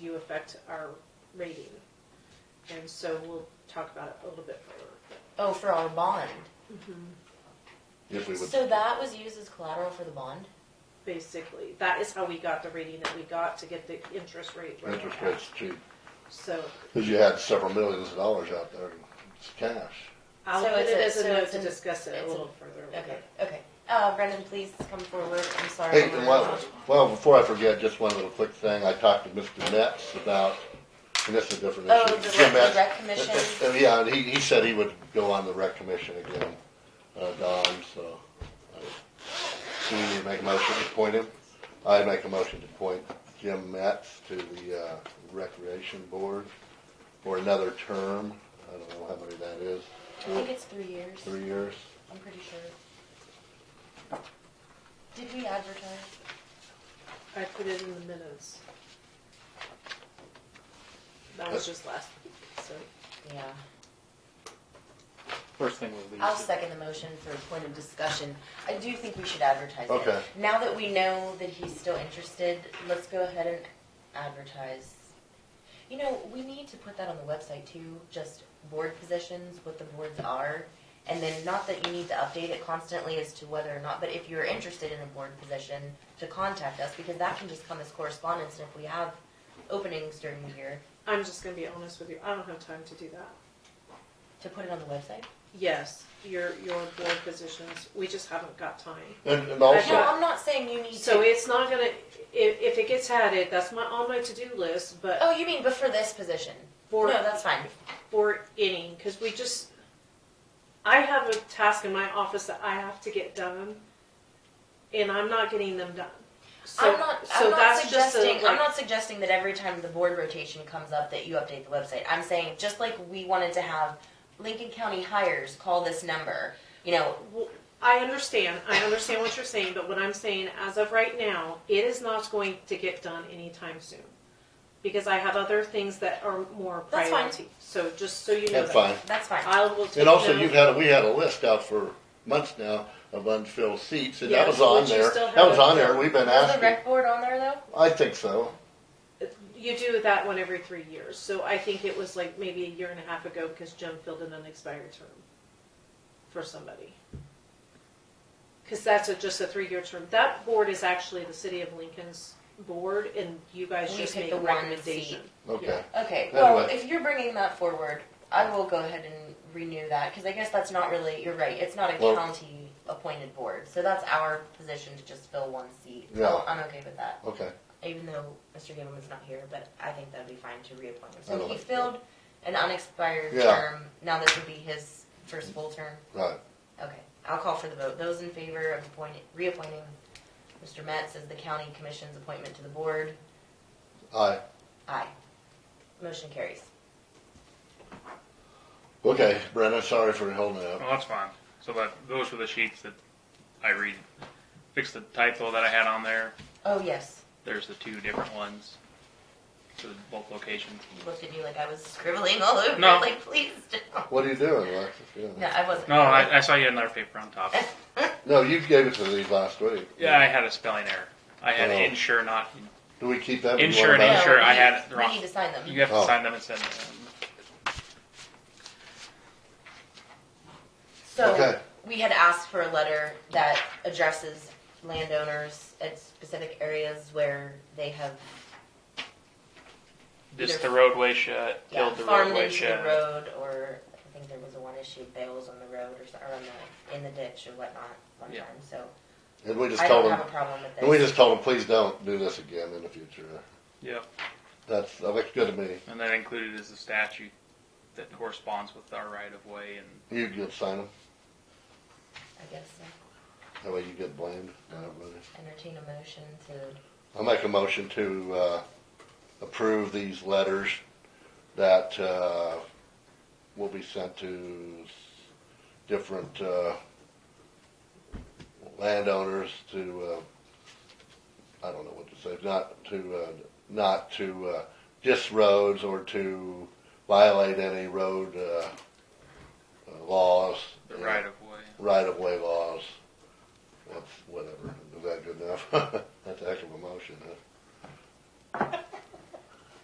you affect our rating. And so we'll talk about it a little bit further. Oh, for our bond. If we would, So that was used as collateral for the bond? Basically, that is how we got the rating that we got to get the interest rate. where we're interest at. rates cheap, So cause you had several millions of dollars out there, in cash. I'll So put it's it a- as a so note it's to an- discuss it a it's little an- further. with Okay, it. okay. Uh, Brendan, please come forward. I'm sorry. Hey, and well, well, before I forget, just one little quick thing, I talked to Mr. Metz about, and this is a different Oh, issue. the Jim rec- the Metz. rec commission? Uh, uh, Yeah, and he, he said he would go on the rec commission again, uh, Don, so. I- Do we need to make a motion to appoint him? I make a motion to appoint Jim Metz to the, uh, recreation board for another term, I don't know how many that is, I think it's three years. three years? I'm pretty sure. Did we advertise? I put it in the minutes. That was just last week, so. Yeah. First thing we leave. I'll is- second the motion for a point of discussion. I do think we should advertise it. Okay. Now that we know that he's still interested, let's go ahead and advertise. You know, we need to put that on the website too, just board positions, what the boards are. And then not that you need to update it constantly as to whether or not, but if you're interested in a board position, to contact us because that can just come as correspondence and if we have openings during the year, I'm just gonna be honest with you, I don't have time to do that. to put it on the website. Yes, your, your board positions, we just haven't got time. And, and No, also, I'm not saying you need to. So it's not gonna, if, if it gets added, that's my, on my to-do list, but Oh, you mean but for this position? for, no, that's fine. for any, cause we just, I have a task in my office that I have to get done, and I'm not getting them done. So, I'm not. so I'm not that's just a, suggesting. I'm like- not suggesting that every time the board rotation comes up that you update the website. I'm saying just like we wanted to have Lincoln County hires call this number. You know, Well, I understand, I understand what you're saying, but what I'm saying, as of right now, it is not going to get done anytime soon. Because I have other things that are more That's fine. priority, so just so you know. that's that. fine. that's fine. I will take. And also, note. you've had, we had a list out for months now of unfilled seats, and that Yes, was on which you there. still That was haven't on there, filled. we've been Was the asking. rec board on there though? I think so. You do that one every three years, so I think it was like maybe a year and a half ago because Jim filled in an expired term for somebody. Because that's a, just a three-year term. That board is actually the city of Lincoln's board, and you guys We just pick make the a one recommendation. Okay. Okay. Well, Anyway. if you're bringing that forward, I will go ahead and renew that because I guess that's not really. You're right. It's not a Well- county appointed board, so that's our position to just fill one seat. Yeah. Well, I'm okay with that. Okay. even though Mr. Gableman's not here, but I think that'd be fine to reappoint him. I So don't he like- filled an unexpired Yeah. term, now this would be his first full term. Right. Okay, I'll call for the vote. Those in favor of appointing, reappointing Mr. Metz as the county commission's appointment to the board, Aye. aye. Motion carries. Okay, Brenna, sorry for holding it up. Well, that's fine. So that those were the sheets that I read. Fix the typo that I had on there. Oh, yes, There's the two different ones for the both locations. he looked at you like I was scribbling all over, it, No. like, please don't. What are you doing, Alexis? No, Yeah. I wasn't. No, I, I saw you had another paper on top. No, you gave it to these last week. Yeah, I had a spelling error. I had Oh. insure not. Do we keep that? in Insure and No, I'm sure we- I had it wrong. We need to sign them. You have to Oh. sign them and send them. So, Okay. we had asked for a letter that addresses landowners at specific areas where they have This Either- the roadway shut. yeah, Killed the farmed roadway into the shut. road, or I think there was a one issue bales on the road or, so- or on the, in the ditch or whatnot one Yeah. time, so. And we just I told don't them, have a problem with this. and we just told them, please don't do this again in the future. Yep. That's, that looks good to me. And then included is the statute that corresponds with our right of way and You could sign them. I guess so. That way you get blamed. not everybody. entertain a motion to, I'll make a motion to, uh, approve these letters that, uh, will be sent to s- different, uh, landowners to, uh, I don't know what to say, not to, uh, not to, uh, dis roads or to violate any road, uh, uh, laws. the right of way. Right of way laws. That's whatever. Is that good enough? That's a heck of a motion, huh?